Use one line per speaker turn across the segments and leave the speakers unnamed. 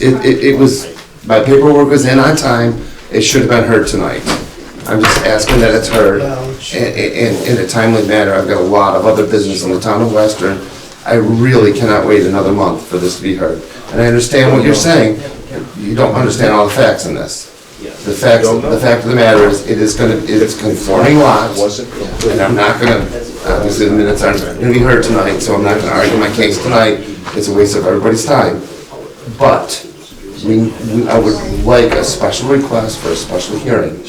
It, it, it was, my paperwork was in on time, it should have been heard tonight. I'm just asking that it's heard in, in, in a timely manner. I've got a lot of other business in the town of Western. I really cannot wait another month for this to be heard. And I understand what you're saying, you don't understand all the facts in this. The facts, the fact of the matter is, it is gonna, it's conforming lots, and I'm not gonna, obviously the minutes aren't gonna be heard tonight, so I'm not gonna argue my case tonight. It's a waste of everybody's time. But we, we- I would like a special request for a special hearing.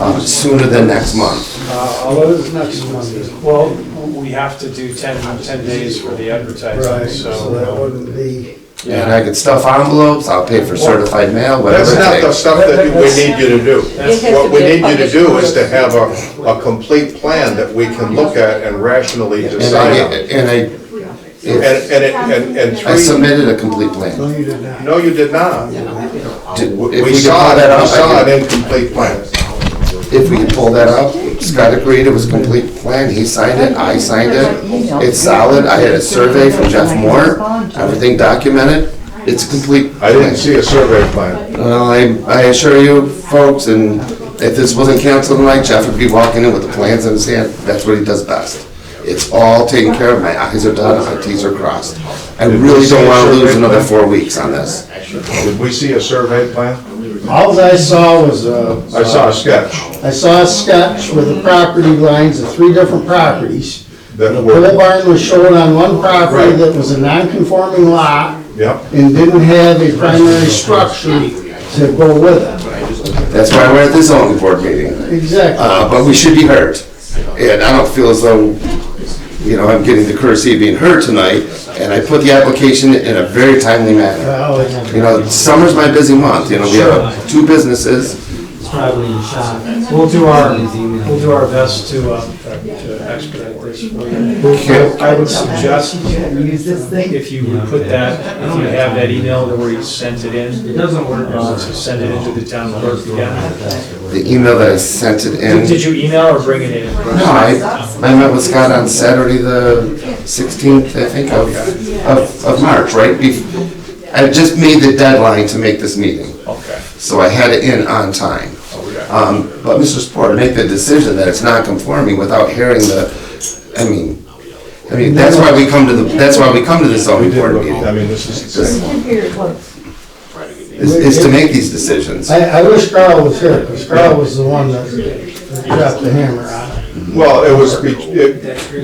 uh, Sooner than next month.
Uh, although it's next Monday.
Well, we have to do 10 10 days for the advertising,
Right, so that
uh,
so.
wouldn't be,
And I could stuff envelopes, I'll pay for certified mail, whatever
That's not
it
the
takes.
stuff that we need you to do.
That's-
What we need you to do is to have a, a complete plan that we can look at and rationally
And I,
decide on.
get- and I,
And,
if-
and, it- and, and
I
three,
submitted a complete plan.
no, you did not.
no, you did not.
Did- if
Uh, We
could
saw
pull
it,
up, I
we saw
could-
an incomplete plan.
If we could pull that up, Scott agreed it was a complete plan, he signed it, I signed it, it's solid, I had a survey from Jeff Moore, everything documented, it's a complete.
I didn't
plan.
see a survey plan.
Well, I, I assure you, folks, and if this wasn't canceled tonight, Jeff would be walking in with the plans in his hand. That's what he does best. It's all taken care of. My eyes are done, my T's are crossed. I really don't want to lose another four weeks on this.
Did we see a survey plan?
All I saw was a.
I saw a sketch
I saw a sketch with the property lines of three different properties.
that
The pole
were,
barn was shown on one property
Right.
that was a non-conforming lot
yeah,
and didn't have a primary structure to go with
That's why we're at the zoning board meeting.
it. Exactly.
Uh, but we should be heard. And I don't feel as though, you know, I'm getting the courtesy of being heard tonight, and I put the application in a very timely manner.
Well, it's-
You know, summer's my busy month, you know, we have two businesses.
We'll do our, we'll do our best to uh, to expedite this. for you. I would suggest,
Use this thing?
if you would put that, if you have that email where you sent it in. It doesn't work. Send it into the town clerk again.
The email that I sent it in.
Did you email or bring it in?
No, I, I met with Scott on Saturday, the 16th, I think, of, of, of March, right? Bef- I just made the deadline to make this meeting,
Okay.
so I had it in on time. Um, But Mr. Sport, make the decision that it's not conforming without hearing the, I mean, I mean, that's why we come to the, that's why we come to the
we
zoning
did
board
look, I
meeting,
mean, this is the same.
is, is to make these decisions.
I, I wish Carl was here, because Carl was the one that that dropped the hammer on it.
Well, it was, be- it-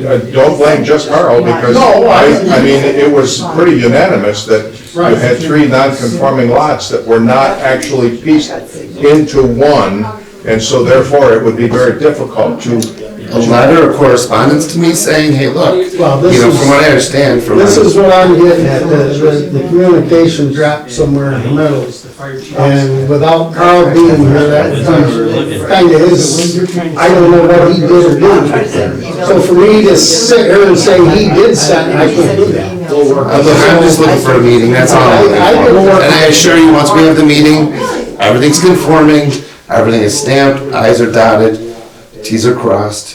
uh, don't blame just Carl, because I, I mean, it was pretty unanimous that you had three non-conforming lots that were not actually pieced into one, and so therefore it would be very difficult to,
A letter of correspondence to me saying, hey, look, you
Well, this
know,
is-
from what I understand from.
This is what I'm getting at, is that the communication dropped somewhere in the middle. And without Carl being here, that was kind of his, I don't know what he did or didn't. So for me to sit here and say he did something, I can't do that.
Uh, Look, I'm just looking for a meeting, that's all I'm looking for. And I assure you, once we have the meeting, everything's conforming, everything is stamped, i's are dotted, t's are crossed.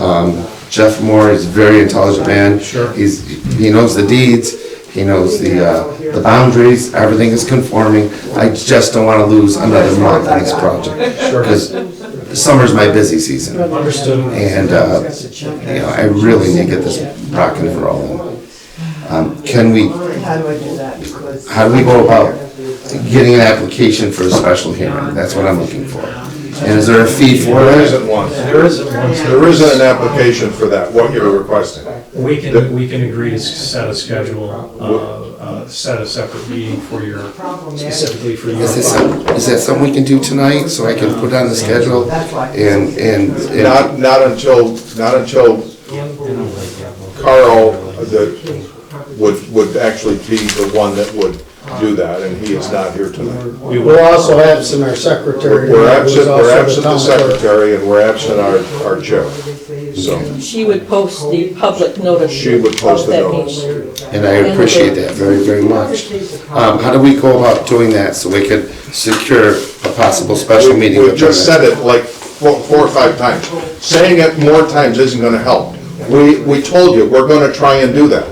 Um, Jeff Moore is a very intelligent man. Sure. He's, he knows the deeds, he knows the, uh, the boundaries, everything is conforming. I just don't wanna lose another month on this project, because summer's my busy season.
Understood.
And, uh, you know, I really need to get this rocking and rolling. Um, Can we
How do I do that? Because-
how do we go about getting an application for a special hearing? That's what I'm looking for. And is there a fee for
there
it?
isn't one.
There isn't one.
There isn't an application for that, what you're requesting.
We can, we can agree to set a schedule, uh, uh, set a separate meeting for your, specifically for your.
Is this, some- is that something we can do tonight, so I can put on the schedule? And, and, and-
Not, not until, not until Carl uh, that would, would actually be the one that would do that, and he is not here tonight.
We will.
We're also absent our secretary.
We're absent,
who's also
we're absent the
town clerk.
secretary and we're absent our, our chair. So
She would post the public notice.
she would post
of
the
that
notice.
meeting.
and I appreciate that very, very much. Um, how do we go about doing that so we could secure a possible special
We-
meeting?
We've just said it like four, four or five times. Saying it more times isn't gonna help. We, we told you, we're gonna try and do that.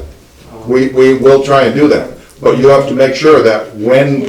We, we will try and do that. But you have to make sure that when